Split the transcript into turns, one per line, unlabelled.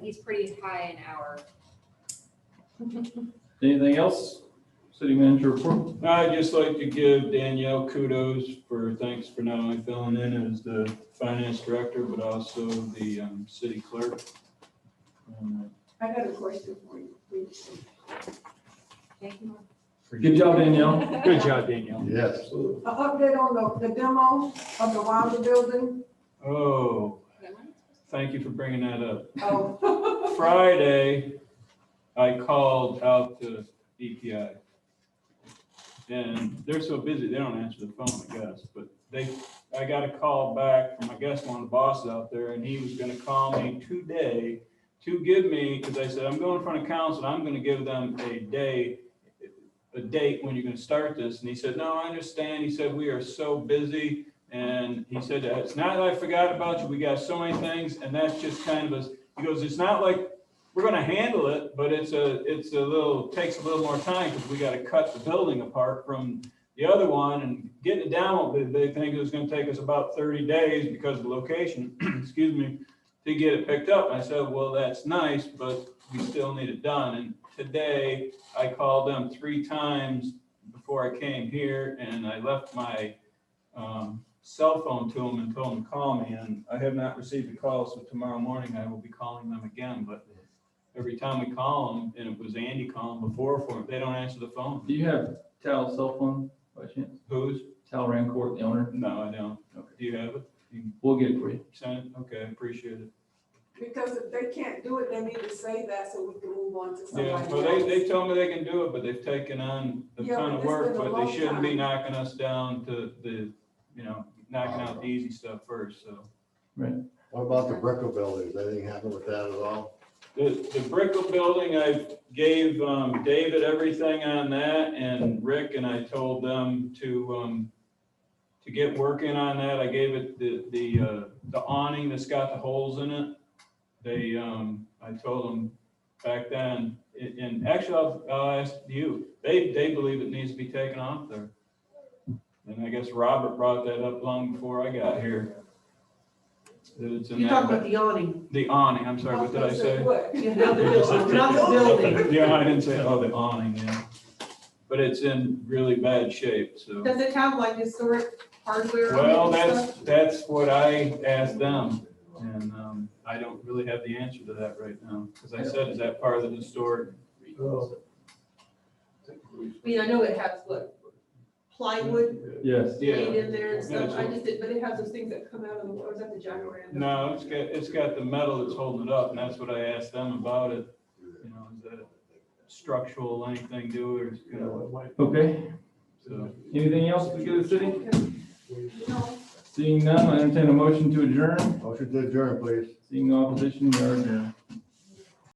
he's pretty high in our.
Anything else? City manager report?
I'd just like to give Danielle kudos for, thanks for not only filling in as the finance director, but also the um, city clerk. Um,
I got a question for you, please.
Thank you.
Good job, Danielle.
Good job, Danielle.
Yes.
An update on the, the demo of the Wilder building.
Oh, thank you for bringing that up.
Oh,
Friday, I called out to EPI. And they're so busy, they don't answer the phone, I guess, but they, I got a call back from, I guess, one of the bosses out there, and he was gonna call me today to give me, because I said, I'm going in front of council, and I'm gonna give them a day, a date when you're gonna start this, and he said, no, I understand, he said, we are so busy, and he said, it's not that I forgot about you, we got so many things, and that's just kind of a he goes, it's not like, we're gonna handle it, but it's a, it's a little, takes a little more time, because we gotta cut the building apart from the other one, and getting it down, won't be the big thing. it was gonna take us about thirty days because of the location, excuse me, to get it picked up. I said, well, that's nice, but we still need it done, and today, I called them three times before I came here, and I left my, um, cell phone to them and told them to call me, and I have not received a call, so tomorrow morning I will be calling them again, but every time we call them, and it was Andy calling before for them, they don't answer the phone.
Do you have Tal's cell phone by chance?
Who's?
Tal Rancourt, the owner?
No, I don't.
Okay.
Do you have it? You
We'll get it for you.
sent it? Okay, I appreciate it.
Because if they can't do it, they need to say that so we can move on to somebody
Yeah,
else.
well, they, they tell me they can do it, but they've taken on a
Yeah,
ton
but
of
it's
work,
been a
but they
long
shouldn't be
time.
knocking us down to the, you know, knocking out the easy stuff first, so.
What about the Brickell building? Is anything happened with that at all?
The, the Brickell building, I gave um, David everything on that and Rick, and I told them to, um, to get working on that. I gave it the, the, uh, the awning that's got the holes in it. They, um, I told them back then, and- and actually, I'll, I'll ask you, they, they believe it needs to be taken off there. And I guess Robert brought that up long before I got here. That it's in
You're talking about
that,
the awning,
the awning, I'm sorry,
was
what did
gonna
I
say,
say?
What?
yeah, not the building, not the building.
Yeah, I didn't say, oh, the awning, yeah. But it's in really bad shape, so.
Does it have like historic hardware? on it
Well,
and
that's,
stuff?
that's what I asked them, and um, I don't really have the answer to that right now. Because I said, is that part of the historic?
I mean, I know it has what plywood
Yes.
made in there and
Yeah,
stuff, I
it's-
just did, but it has those things that come out of the, or is that the jacaranda?
No, it's got, it's got the metal that's holding it up, and that's what I asked them about it. You know, is that structural, anything do, or, you know,
Okay.
so.
Anything else to give the city?
No.
Seeing none, I entertain a motion to adjourn.
Motion to adjourn, please.
Seeing no opposition, we are adjourned.